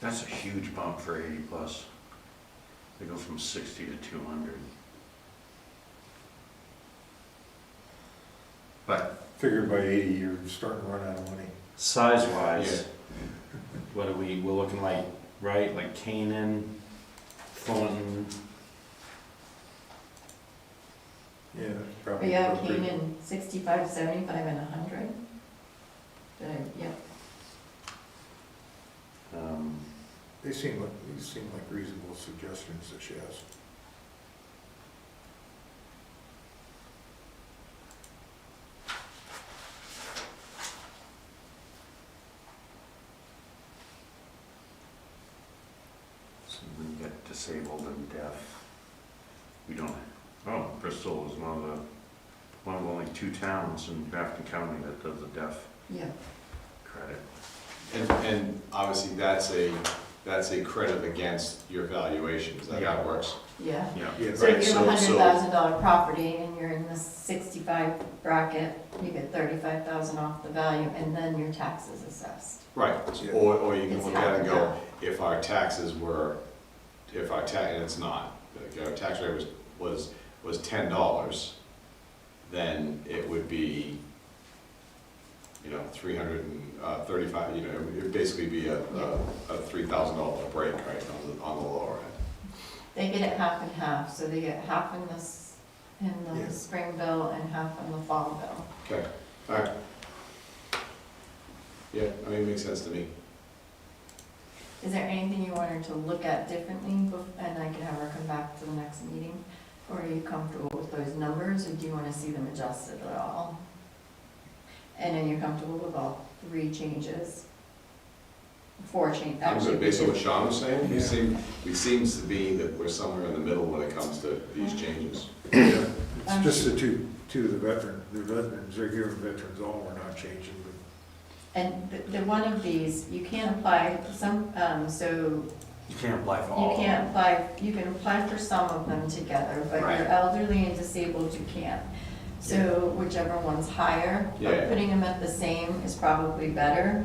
That's a huge bump for eighty plus. They go from sixty to two hundred. But Figured by eighty, you're starting to run out of money. Size wise, what are we, we're looking like, right, like Canaan, Thornton, Yeah, that's probably. Yeah, appropriate. came in sixty-five, seventy-five, and a hundred. Did I- Yep, um, They seem like, these seem like reasonable suggestions that she has. so when you get disabled and deaf, we don't, oh, Bristol is one of the, one of only two towns in Grafton County that does a deaf yeah. credit. And, and obviously, that's a, that's a credit against your valuation, is that how Yeah. it works? yeah. Yeah. Yeah, So if you have a Right, so- hundred so- thousand dollar property and you're in the sixty-five bracket, you get thirty-five thousand off the value, and then your tax is assessed. Right, Yeah. or, or you can It's look at it and half and go, if our taxes were, if our tax, and it's not, like, our tax rate was, was, was ten dollars, then it would be, you know, three hundred and uh, thirty-five, you know, it would basically be a, a, a three thousand dollar break, right, on the, on the lower end. They get it half and half, so they get half in this, in Yeah. the spring bill and half in the fall bill. Okay, all right. Yeah, I mean, it makes sense to me. Is there anything you want her to look at differently, bef- and I can have her come back to the next meeting? Or are you comfortable with those numbers, or do you wanna see them adjusted at all? And are you comfortable with all three changes? Four change, I'm actually. good, we based on did- what Sean was saying, we Yeah. seem, it seems to be that we're somewhere in the middle when it comes to these changes. Yeah. Um, It's just the two, two of the veteran, the veterans, they're giving veterans all, we're not changing, And the, the one of these, you can't apply, some, um, so You can't apply for all You of them. can't apply, you can apply for some of them together, but Right. your elderly and disabled, you can't. So whichever one's higher, Yeah. but putting them at the same is probably better.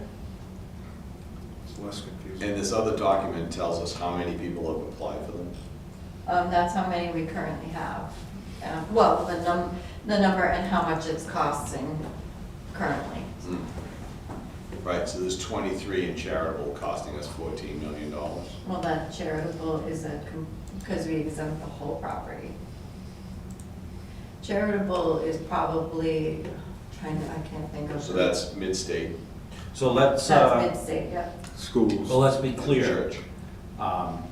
but it's less And confusing. this other document tells us how many people have applied for them. Um, that's how many we currently have. Um, Well, the num, the number and how much it's costing currently. Right, so there's twenty-three in charitable costing us fourteen million dollars. Well, that charitable is a, because we exempt the whole property. Charitable is probably, trying to, I can't think of. So that's mid-state so let's, That's uh, mid-state, yeah. Schools. well, let's be and clear. church. Um,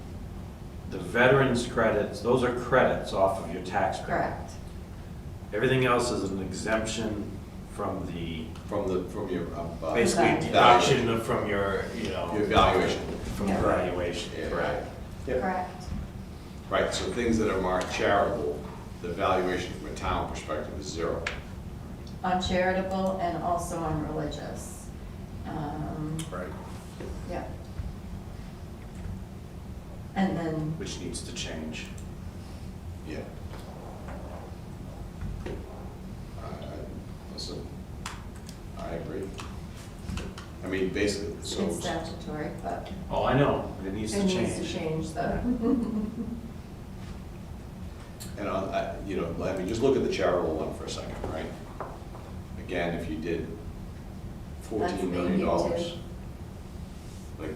The veterans credits, those are credits off of your tax credit. Correct, Everything else is an exemption from the, From the, from your, um, uh, basically Exactly. deduction of- from your, you your know, valuation. from Yeah. valuation. Yeah, right. Yeah. correct. Right, so things that are marked charitable, the valuation from a town perspective is zero. On charitable and also on religious. Um, Right. yeah. And then, Which needs to change. Yeah. I, I, listen, I agree. I mean, basically, so, it's statutory, but Oh, I know, it needs it to needs to change. change the, and on, I, you know, I mean, just look at the charitable one for a second, right? Again, if you did That's fourteen million maybe dollars. too. Like,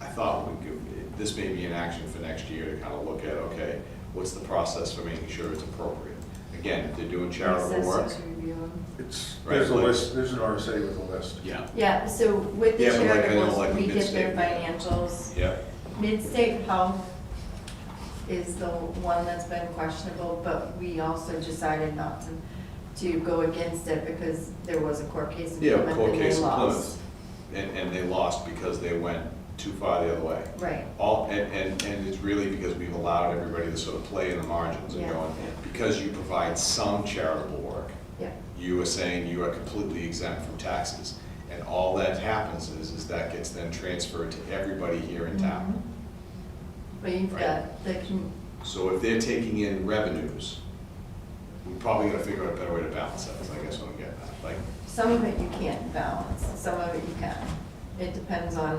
I thought we could, this may be an action for next year to kind of look at, okay, what's the process for making sure it's appropriate? Again, if they're doing charitable work. Assessors review. It's, Right, there's a like- list, there's an RSA with a list. Yeah. Yeah, so with the Yeah, but like, I know, charitables, like we get their mid-state. financials. Yeah. Mid-state health is the one that's been questionable, but we also decided not to, to go against it because there was a court case in Yeah, Plymouth court and they case in lost. Plymouth. And, and they lost because they went too far the other way. Right, All, and, and, and it's really because we've allowed everybody to sort of play in the margins and Yeah. going, because you provide some charitable work, yeah. you are saying you are completely exempt from taxes. And all that happens is, is that gets then transferred to everybody here in Mm-hmm. town. But you've Right. got the, com- So if they're taking in revenues, we're probably gonna figure out a better way to balance that, is I guess what I'm getting at. Like, some of it you can't balance, some of it you can. It depends on